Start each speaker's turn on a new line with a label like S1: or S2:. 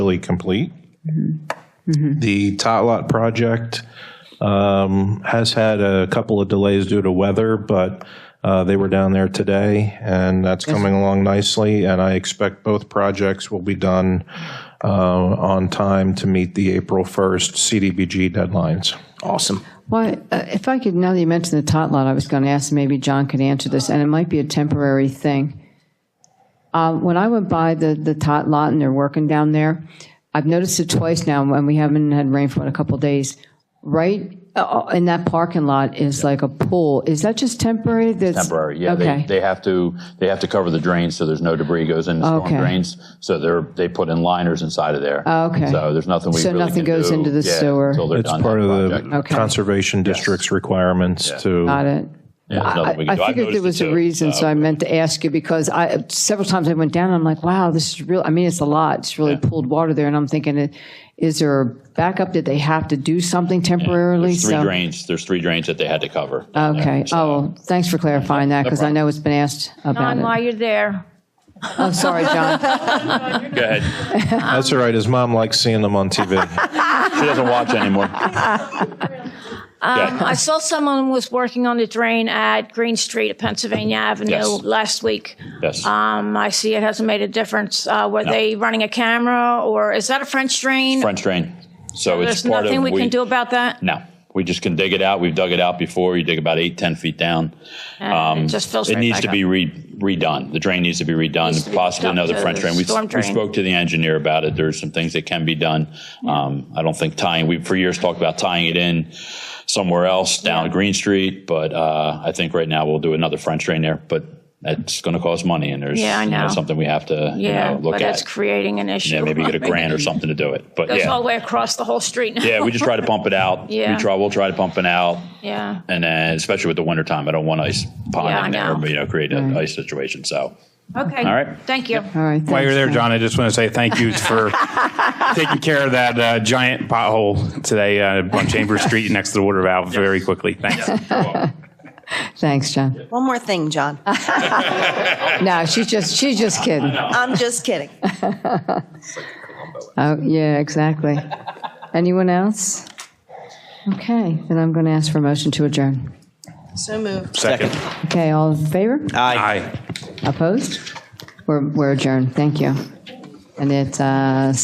S1: really complete.
S2: Mm-hmm.
S1: The tot lot project um, has had a couple of delays due to weather, but uh, they were down there today, and that's coming along nicely. And I expect both projects will be done uh, on time to meet the April 1st CDBG deadlines.
S3: Awesome.
S2: Well, uh, if I could, now that you mentioned the tot lot, I was going to ask, maybe John could answer this, and it might be a temporary thing. Uh, When I went by the, the tot lot and they're working down there, I've noticed it twice now, and we haven't had rain for a couple of days. Right uh, in that parking lot is like a pool. Is that just temporary? That's-
S4: Temporary, yeah. They,
S2: Okay.
S4: they have to, they have to cover the drains so there's no debris goes into storm
S2: Okay. Oh,
S4: drains. So they're, they put in liners inside of there.
S2: Okay.
S4: So there's nothing we
S2: So
S4: really
S2: nothing
S4: can
S2: goes
S4: do,
S2: into the
S4: yeah,
S2: sewer.
S4: Until they're
S1: It's
S4: done
S1: part
S4: that
S1: of
S4: project.
S1: the
S2: Okay.
S1: Conservation District's requirements to.
S2: Got it.
S4: Yeah, there's nothing we
S2: I
S4: can do.
S2: I
S4: I've
S2: figured there
S4: noticed
S2: was
S4: it
S2: a
S4: too. Um,
S2: reason, so I meant to ask you because I, several times I went down, and I'm like, wow, this is real, I mean, it's a lot, it's really pooled water there, and I'm thinking, is there a backup, did they have to do something temporarily?
S4: There's three
S2: So-
S4: drains, there's tee drains that they had to cover. down there.
S2: Okay, oh, well, thanks for clarifying that, because I know it's been asked about
S5: Don, while
S2: it.
S5: you're there,
S2: Oh, sorry, John,
S4: Go ahead.
S1: That's all right. His mom likes seeing them on TV.
S4: She doesn't watch anymore. Yeah.
S5: um, I saw someone was working on the drain at Green Street at Pennsylvania Avenue
S4: Yes.
S5: last week.
S4: Yes.
S5: Um, I see it hasn't made a difference. Uh, Were they running a camera, or is that a French drain?
S4: French drain. So it's
S5: There's
S4: part of.
S5: nothing we can do about that?
S4: No, we just can dig it out. We've dug it out before. You dig about eight, ten feet down.
S5: And It just fills
S4: um, It
S5: right
S4: needs
S5: back
S4: to
S5: up.
S4: be re- redone. The drain needs to be redone,
S5: to be
S4: possibly
S5: hooked up
S4: another
S5: to
S4: French
S5: the
S4: drain. We,
S5: storm
S4: we
S5: drain.
S4: spoke to the engineer about it. There's some things that can be done. Um, I don't think tying, we for years talked about tying it in somewhere else down Green Street, but uh, I think right now we'll do another French drain there, but that's going to cost money and there's
S5: Yeah, I
S4: you
S5: know.
S4: something we have to you
S5: Yeah,
S4: know, look
S5: but that's
S4: at.
S5: creating an issue.
S4: Yeah, maybe get a grant or something to do it. But
S5: Goes all the
S4: yeah,
S5: way across the whole street now.
S4: yeah, we just try to pump it out.
S5: Yeah.
S4: We try, we'll try to pump it out.
S5: Yeah.
S4: And then, especially with the wintertime, I don't want ice
S5: Yeah, I
S4: ponding
S5: know. Mm.
S4: there, you know, create an ice situation, so.
S5: Okay.
S4: All right.
S5: Thank you.
S2: all right.
S3: While
S2: thanks,
S3: you're there, John, I just want to say thank you for taking care of that uh, giant pothole today uh, on Chambers Street next to the water valve very quickly. Thanks.
S2: Thanks, John.
S6: One more thing, John.
S2: No, she's just, she's just kidding.
S6: I'm just kidding.
S2: Oh, yeah, exactly. Anyone else? Okay, then I'm going to ask for a motion to adjourn.
S6: So moved.
S3: Second.
S2: Okay, all in favor?
S3: Aye.
S2: Opposed? We're we're adjourned. Thank you. And it's uh,